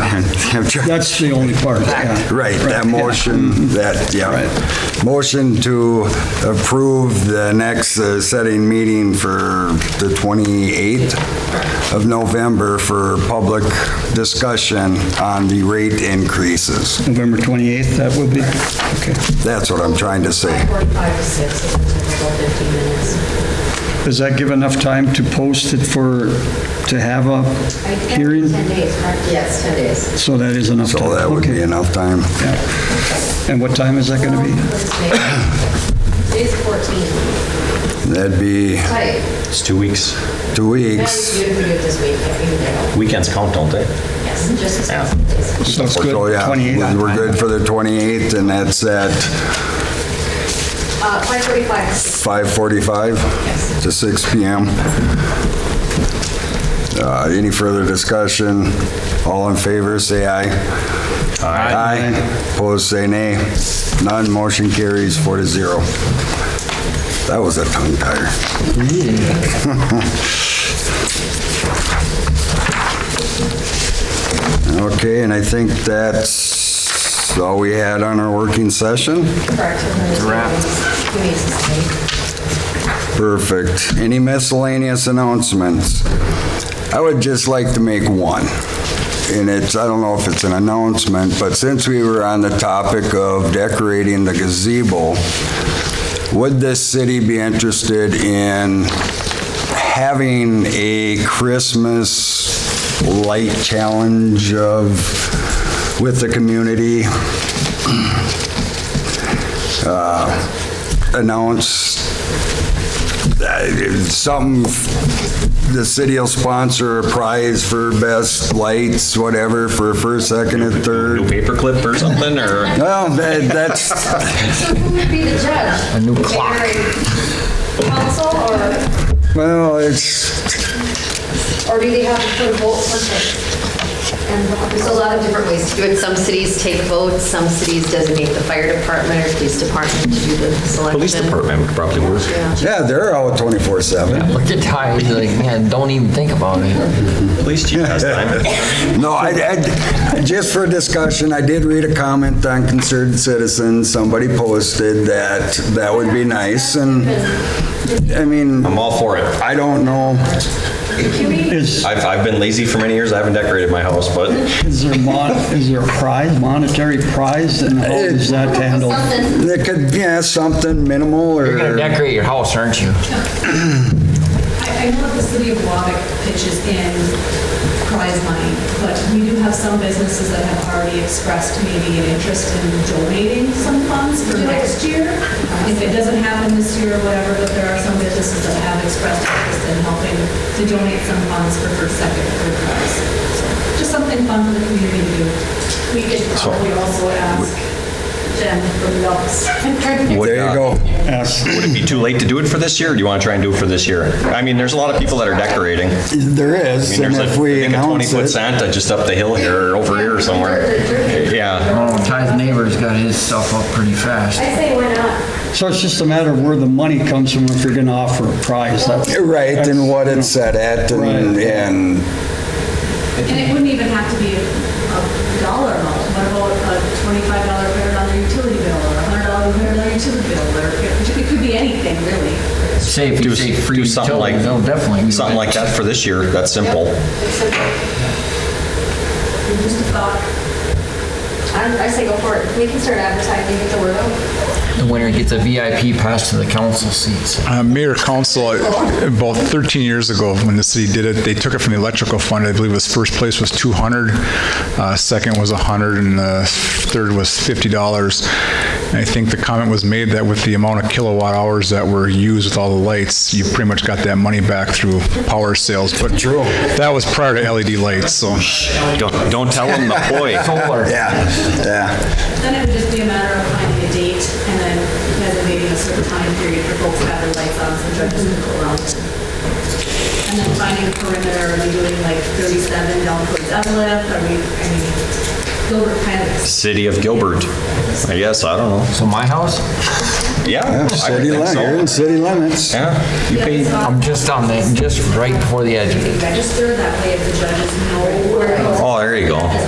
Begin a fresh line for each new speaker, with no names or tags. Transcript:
I'm trying-
That's the only part, yeah.
Right, that motion, that, yeah. Motion to approve the next uh, setting meeting for the 28th of November for public discussion on the rate increases.
November 28th, that will be, okay.
That's what I'm trying to say.
5:45 to 6, it'll take about 15 minutes.
Does that give enough time to post it for, to have
I
a
guess
hearing?
10 days, correct? Yes, 10 days.
So that is enough time?
So that would be
Okay.
enough time.
Yeah. And what time is that going to be?
Today's 14,
That'd be
tight.
It's two weeks.
two
Now
weeks.
you do it this week, if you know.
Weekends count, don't they?
Yes, just as many days.
So it's good,
So, yeah,
28th?
We're good for the 28th, and that's at
Uh, 5:45 to 6,
5:45
Yes.
to 6 PM. Uh, Any further discussion? All in favor, say aye. Aye. Opposed, say nay. None, motion carries four to zero. That was a tongue tire. Okay, and I think that's all we had on our working session.
correct? Wrap. We need to stay.
Perfect. Any miscellaneous announcements? I would just like to make one. And it's, I don't know if it's an announcement, but since we were on the topic of decorating the gazebo, would this city be interested in having a Christmas light challenge of, with the community? Uh, Announce uh, something, the city will sponsor a prize for best lights, whatever, for first, second, and
New
third.
paperclip or something, or?
Well, that, that's,
So who would be the judge? A new clock. Council, or,
well, it's,
or do they have to vote for it? And
There's a lot of different ways to do it. Some cities take votes, some cities designate the fire department or police department to do the selection.
Police department would probably work.
Yeah, they're out 24/7.
Look at Ty, he's like, man, don't even think about it.
Police chief has time.
No, I, I- just for discussion, I did read a comment on Concerned Citizen. Somebody posted that that would be nice, and, I mean,
I'm all for it.
I don't know.
Is,
I've, I've been lazy for many years. I haven't decorated my house, but
is there mon, is there a prize, monetary prize, and how
Eh.
is that handled?
It could, yeah, something minimal
You're gonna
or,
decorate your house, aren't you?
I, I know that the city of Wabac pitches in prize money, but we do have some businesses that have already expressed maybe an interest in donating some funds for next year. Uh, If it doesn't happen this year or whatever, but there are some businesses that have expressed interest in helping to donate some funds for first, second, third prize. So Just something fun for the community to do. We could probably also ask Jen from Lux.
there you go.
Ask-
would it be too late to do it for this year? Or do you want to try and do it for this year? I mean, there's a lot of people that are decorating. I
There
mean,
is, and
there's a-
if
I
we
think a
announce
20-foot
it,
Santa just up the hill here, or over here somewhere. Yeah.
Oh, Ty's neighbor's got his stuff up pretty fast.
I say why not?
So it's just a matter of where the money comes from if you're going to offer a prize. That's-
right, and what it's set
that's,
at, and,
Right.
and
And it wouldn't even have to be a dollar amount. What about a twenty-five dollar credit on their utility bill, or a hundred dollar credit on their utility bill, or it it could be anything, really.
Say if
Do,
you say free
do something like,
utilities, they'll definitely do
something
it.
like that for this year. That's simple.
Just a thought.
I I say go for it. We can start advertising, get the word out.
The winner gets a VIP pass to the council seats.
Uh, Mayor Council, uh, about 13 years ago, when the city did it, they took it from the electrical fund. I believe it was first place was 200, uh, second was 100, and the third was $50. And I think the comment was made that with the amount of kilowatt hours that were used with all the lights, you pretty much got that money back through power sales. But True. that was prior to LED lights, so.
Don't, don't tell them the ploy.
Yeah, yeah.
Then it would just be a matter of finding a date and then designating a certain time period for folks to have their lights on, so judges can go around. And then finding a perimeter, are we doing like thirty-seven down towards Evelyn, are we, I mean, Gilbert kind of
City of Gilbert. I guess, I don't know.
So my house,
Yeah. I would
City
think
limits,
so.
you're in city limits.
Yeah. You pay,
I'm just on the, just right before the edge of it.
register, that way if the judges know where it goes.
oh, there you go.